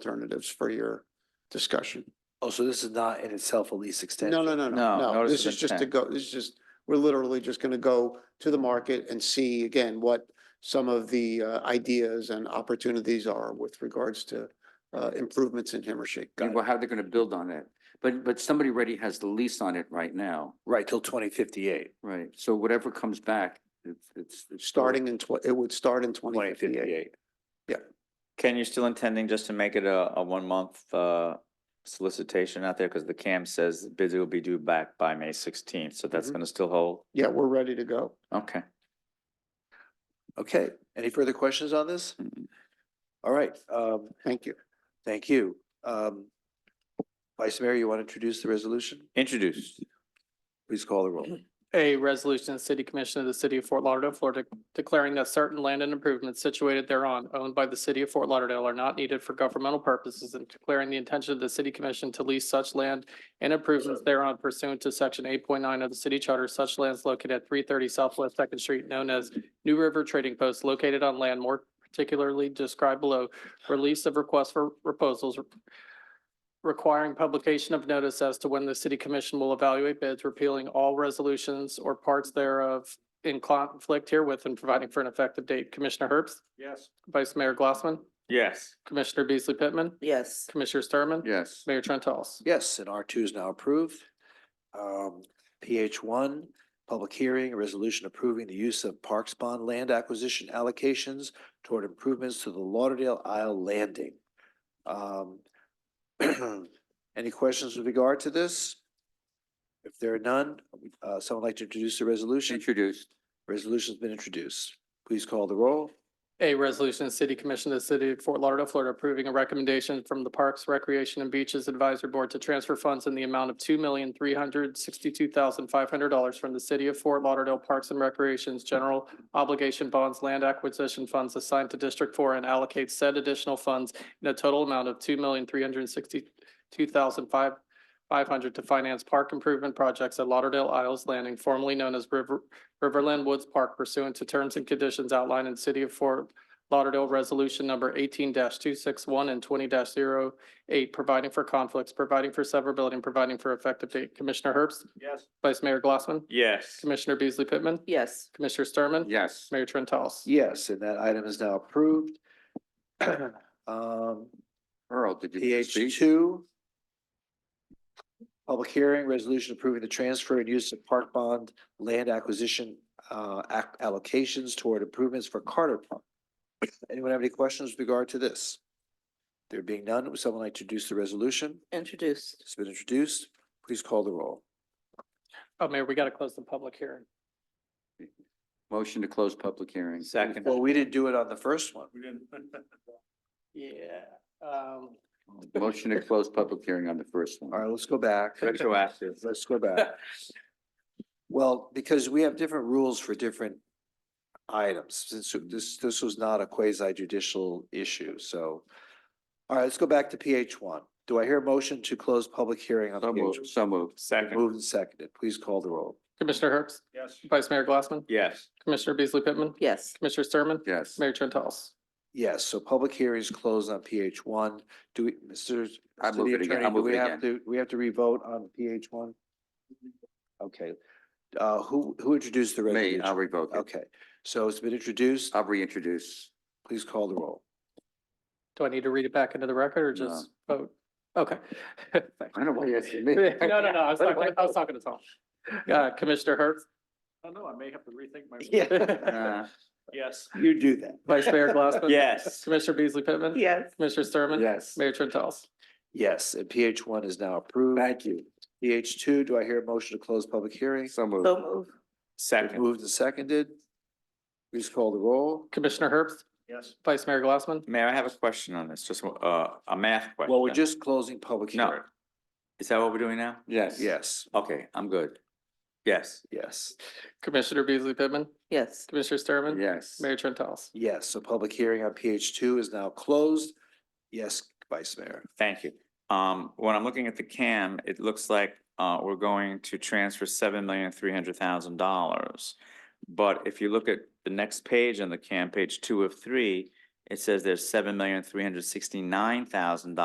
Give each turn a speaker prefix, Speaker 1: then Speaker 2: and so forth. Speaker 1: alternatives for your discussion.
Speaker 2: Oh, so this is not in itself a lease extension?
Speaker 1: No, no, no,
Speaker 3: No,
Speaker 1: no, no.
Speaker 3: notice
Speaker 1: This
Speaker 3: of
Speaker 1: is just to
Speaker 3: intent.
Speaker 1: go, this is just, we're literally just going to go to the market and see again what some of the uh, ideas and opportunities are with regards to uh, improvements in Himmershey.
Speaker 3: And well, how they're gonna build on it. But, but somebody already has the lease on it right now,
Speaker 2: Right, till twenty fifty-eight,
Speaker 3: right? So whatever comes back, it's, it's. it's still-
Speaker 1: Starting in, tw- it would start in twenty
Speaker 2: twenty
Speaker 1: fifty-eight.
Speaker 2: fifty-eight.
Speaker 4: Ken, you're still intending just to make it a, a one-month, uh, solicitation out there? Because the CAM says bids will be due back by May sixteenth, so that's
Speaker 1: Mhm.
Speaker 4: gonna still hold?
Speaker 1: Yeah, we're ready to go.
Speaker 4: Okay.
Speaker 2: Okay, any further questions on this? All right, um,
Speaker 1: Thank you.
Speaker 2: thank you. Um, Vice Mayor, you want to introduce the resolution?
Speaker 4: Introduced.
Speaker 2: Please call the roll.
Speaker 5: A resolution, of the City Commission of the City of Fort Lauderdale, Florida, declaring that certain land and improvements situated thereon owned by the City of Fort Lauderdale are not needed for governmental purposes and declaring the intention of the City Commission to lease such land and improvements thereon pursuant to section eight point nine of the city charter, such lands located at three thirty Southwest Second Street, known as New River Trading Post, located on land more particularly described below, release of requests for proposals, requiring publication of notice as to when the city commission will evaluate bids, repealing all resolutions or parts thereof in conflict herewith and providing for an effective date. Commissioner Herbst? Yes. Vice Mayor Glassman?
Speaker 4: Yes.
Speaker 5: Commissioner Beasley Pittman?
Speaker 6: Yes,
Speaker 5: Commissioner Sturman?
Speaker 3: Yes.
Speaker 5: Mayor Trent House?
Speaker 2: Yes, and R two is now approved. Um, PH one, public hearing, a resolution approving the use of Parks Bond land acquisition allocations toward improvements to the Lauderdale Isle Landing. Um, any questions with regard to this? If there are none, uh, someone like to introduce the resolution?
Speaker 3: Introduced,
Speaker 2: Resolution's been introduced. Please call the roll.
Speaker 5: A resolution, of the City Commission of the City of Fort Lauderdale, Florida, approving a recommendation from the Parks, Recreation and Beaches Advisory Board to transfer funds in the amount of two million, three hundred sixty-two thousand, five hundred dollars from the City of Fort Lauderdale Parks and Recreation's General Obligation Bonds Land Acquisition Funds assigned to District Four and allocate said additional funds in a total amount of two million, three hundred sixty-two thousand, five, five hundred to finance park improvement projects at Lauderdale Isles Landing, formerly known as River, Riverland Woods Park pursuant to terms and conditions outlined in City of Fort Lauderdale Resolution Number eighteen two six one and twenty 8 providing for conflicts, providing for severability, and providing for effective date. Commissioner Herbst? Yes. Vice Mayor Glassman?
Speaker 4: Yes.
Speaker 5: Commissioner Beasley Pittman?
Speaker 6: yes,
Speaker 5: Commissioner Sturman?
Speaker 3: yes.
Speaker 5: Mayor Trent House?
Speaker 2: Yes, and that item is now approved. Um,
Speaker 3: Earl, did you
Speaker 2: PH
Speaker 3: speak?
Speaker 2: two. Public hearing, resolution approving the transfer and use of park bond land acquisition uh ac- allocations toward improvements for Carter Park. Anyone have any questions with regard to this? There being none, would someone like to introduce the resolution?
Speaker 6: introduced,
Speaker 2: It's been introduced. Please call the roll.
Speaker 5: Oh, Mayor, we got to close the public hearing.
Speaker 3: Motion to close public hearing.
Speaker 4: Second.
Speaker 2: Well, we didn't do it on the first one.
Speaker 5: Yeah. Um,
Speaker 3: Motion to close public hearing on the first
Speaker 2: All
Speaker 3: one.
Speaker 2: right, let's go back.
Speaker 4: Retroactive.
Speaker 2: Let's go back. Well, because we have different rules for different items, since this, this was not a quasi judicial issue, so. All right, let's go back to PH one. Do I hear a motion to close public hearing on
Speaker 3: So
Speaker 2: PH?
Speaker 3: moved, so moved.
Speaker 4: Second.
Speaker 2: Moved and seconded. Please call the roll.
Speaker 5: Commissioner Herbst? Yes. Vice Mayor Glassman?
Speaker 4: Yes.
Speaker 5: Commissioner Beasley Pittman?
Speaker 6: yes,
Speaker 5: Commissioner Sturman?
Speaker 3: Yes.
Speaker 5: Mayor Trent House?
Speaker 2: Yes, so public hearings closed on PH one. Do we, Mr.
Speaker 3: I move
Speaker 2: City
Speaker 3: it again.
Speaker 2: Attorney,
Speaker 3: I
Speaker 2: do
Speaker 3: move
Speaker 2: we
Speaker 3: it
Speaker 2: have to- We have to revote on PH one? Okay, uh, who, who introduced the
Speaker 3: Me,
Speaker 2: resolution?
Speaker 3: I'll revoke it.
Speaker 2: Okay, so it's been introduced.
Speaker 3: I'll reintroduce.
Speaker 2: Please call the roll.
Speaker 5: Do I need to read it back into the record or
Speaker 3: No.
Speaker 5: just vote? Okay.
Speaker 3: I don't know why you're asking me.
Speaker 5: No, no, no, I was talking, I was talking to Tom. Uh, Commissioner Hertz,
Speaker 3: Uh,
Speaker 2: You do that.
Speaker 5: Vice Mayor Glassman.
Speaker 4: Yes.
Speaker 5: Commissioner Beasley Pittman.
Speaker 6: yes.
Speaker 5: Commissioner Sturman.
Speaker 3: Yes.
Speaker 5: Mayor Trent House.
Speaker 2: Yes, and PH one is now approved.
Speaker 3: Thank you.
Speaker 2: PH two, do I hear a motion to close public hearing?
Speaker 3: So moved.
Speaker 6: So move,
Speaker 4: Second.
Speaker 2: Moved and seconded. Please call the roll.
Speaker 5: Commissioner Herbst. Yes. Vice Mayor Glassman.
Speaker 4: Mayor, I have a question on this, just, uh, a math question.
Speaker 2: Well, we're just closing public
Speaker 4: No.
Speaker 2: hearing.
Speaker 4: Is that what we're doing now?
Speaker 3: Yes.
Speaker 2: Yes,
Speaker 4: Okay, I'm good. Yes.
Speaker 2: yes,
Speaker 5: Commissioner Beasley Pittman.
Speaker 6: yes,
Speaker 5: Commissioner Sturman.
Speaker 3: Yes.
Speaker 5: Mayor Trent House.
Speaker 2: yes. So public hearing on PH two is now closed. Yes, Vice Mayor.
Speaker 4: Thank you. Um, when I'm looking at the CAM, it looks like, uh, we're going to transfer seven million, three hundred thousand dollars. But if you look at the next page on the CAM, page two of three, it says there's seven million, three hundred sixty-nine thousand dollars